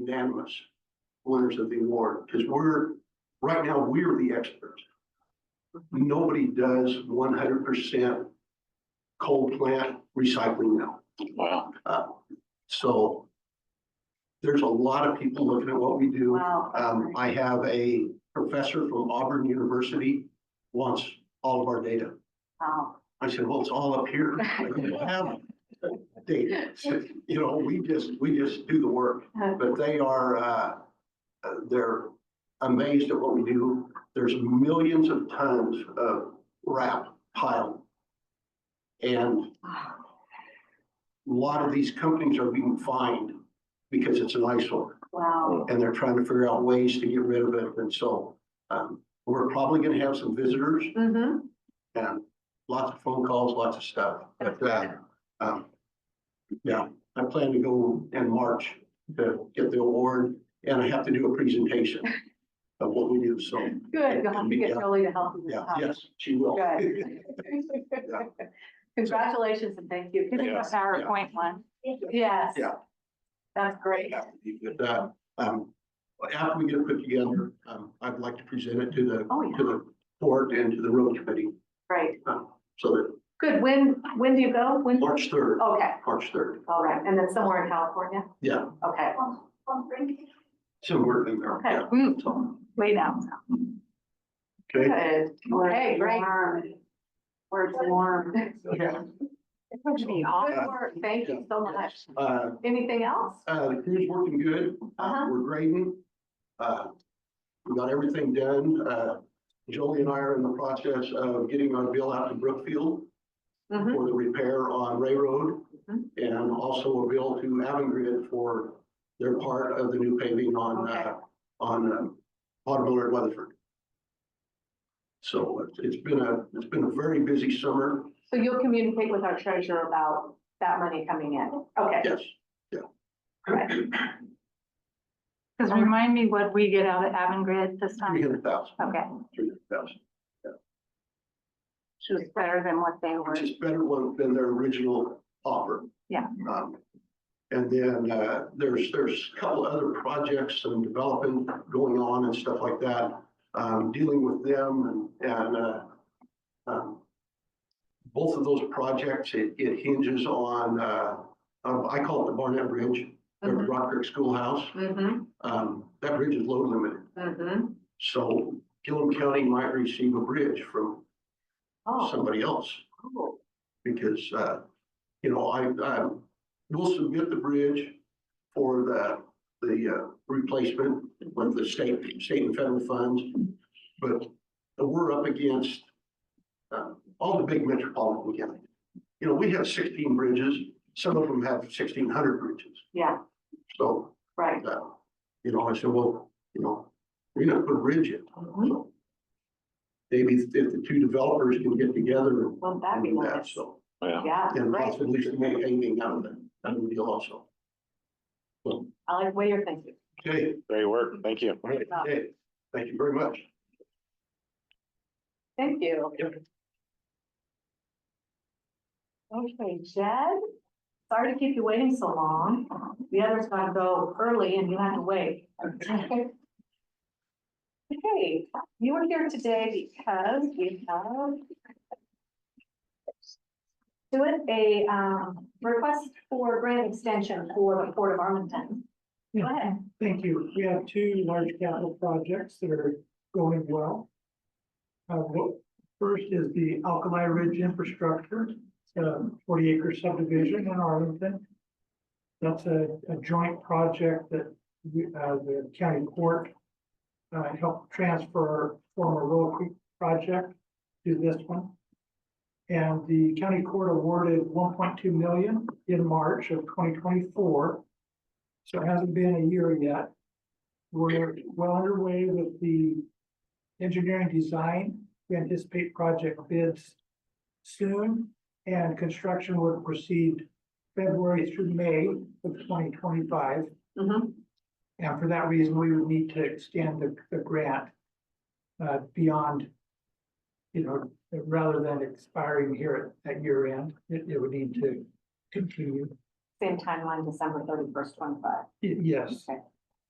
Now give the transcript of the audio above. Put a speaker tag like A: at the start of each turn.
A: unanimous winners of the award, because we're, right now, we're the experts. Nobody does one hundred percent coal plant recycling now.
B: Wow.
A: Uh, So there's a lot of people looking at what we do.
C: Wow.
A: Um, I have a professor from Auburn University wants all of our data.
C: Wow.
A: I said, well, it's all up here. I don't have data. You know, we just, we just do the work, but they are, uh, uh, they're amazed at what we do. There's millions of tons of wrap piled. And a lot of these companies are being fined because it's an eyesore
C: Wow.
A: and they're trying to figure out ways to get rid of it. And so um, we're probably going to have some visitors
C: Mm-hmm.
A: and lots of phone calls, lots of stuff. But uh, um, yeah, I plan to go in March to get the award and I have to do a presentation of what we do. So
C: Good. You'll have to get
A: Yeah.
C: Jolie to help you this
A: yeah,
C: time.
A: yes, she will.
C: Good. Congratulations and thank you. Give me the
B: Yes.
C: PowerPoint one. Yes.
A: Yeah.
C: That's great.
A: But, uh, um, After we get it put together, um, I'd like to present it to the,
C: Oh, yeah.
A: to the board and to the road committee.
C: Great.
A: um, So that
C: Good. When, when do you go? When?
A: March third,
C: Okay.
A: March third,
C: All right. And then somewhere in California?
A: yeah.
C: Okay.
A: Somewhere in there,
C: Okay.
A: yeah.
C: Mm. Way down.
A: Okay.
C: Good. Okay, great. Where it's warm.
A: Yeah.
C: It's going to be hot. Good work. Thank you so much.
A: Uh,
C: Anything else?
A: uh, the crew's working good. Uh,
C: Uh-huh.
A: We're grading. Uh, we got everything done. Uh, Jolie and I are in the process of getting our bill out to Brookfield
C: Mhm.
A: for the repair on Ray Road
C: Mhm.
A: and also a bill to Avangrid for their part of the new paving on,
C: Okay.
A: uh, on, um, Potterville at Weatherford. So uh, it's- it's been a, it's been a very busy summer.
C: So you'll communicate with our treasurer about that money coming in? Okay.
A: Yes.
D: Because remind me what we get out of Avangrid this
A: Three
D: time.
A: hundred thousand,
D: Okay,
A: three hundred thousand.
D: she was better than what they were.
A: which is better one than their original offer.
D: Yeah.
A: Um, and then, uh, there's, there's a couple other projects and development going on and stuff like that, um, dealing with them and, and, uh, um, both of those projects, it, it hinges on, uh, um, I call it the Barnett Bridge, the
C: Mhm.
A: Rock Creek Schoolhouse.
C: Mm-hmm,
A: Um, that bridge is load limited,
C: mm-hmm.
A: so Gillum County might receive a bridge from
C: Oh,
A: somebody else.
C: cool.
A: because, uh, you know, I, I will submit the bridge for the, the, uh, replacement with the state, state and federal funds. But we're up against, uh, all the big metropolitan counties. You know, we have sixteen bridges, some of them have sixteen hundred bridges.
C: Yeah,
A: So,
C: right.
A: uh, you know, I said, well, you know, we're not gonna bridge it. So Maybe if the two developers can get together and
C: Wouldn't that be
A: do that,
C: nice?
A: so.
B: Yeah.
C: Yeah,
A: And
C: right.
A: possibly some hanging out of that, that would be also.
C: I like the way you're thinking.
A: Okay,
B: Great work. Thank you.
A: all right, okay, thank you very much.
C: Thank you.
A: Yep.
C: Okay, Jed, sorry to keep you waiting so long. The others gotta go early and you had to wait. Okay, you are here today because we have doing a um request for grant extension for the Port of Arlington. Go ahead.
E: Thank you. We have two large capital projects that are going well. Uh, what- first is the Alkali Ridge Infrastructure, it's a forty acre subdivision in Arlington. That's a, a joint project that, we- uh, the county court uh, helped transfer former Willow Creek project to this one. And the county court awarded one point two million in March of twenty twenty-four. So it hasn't been a year yet. We're well underway with the engineering design. We anticipate project bids soon and construction would proceed February through May of twenty twenty-five.
C: Mm-hmm.
E: And for that reason, we would need to extend the, the grant uh, beyond, you know, rather than expiring here at, at year end, it, it would need to continue.
C: Same timeline, December thirty-first, twenty-five.
E: Y- Yes,
C: Okay.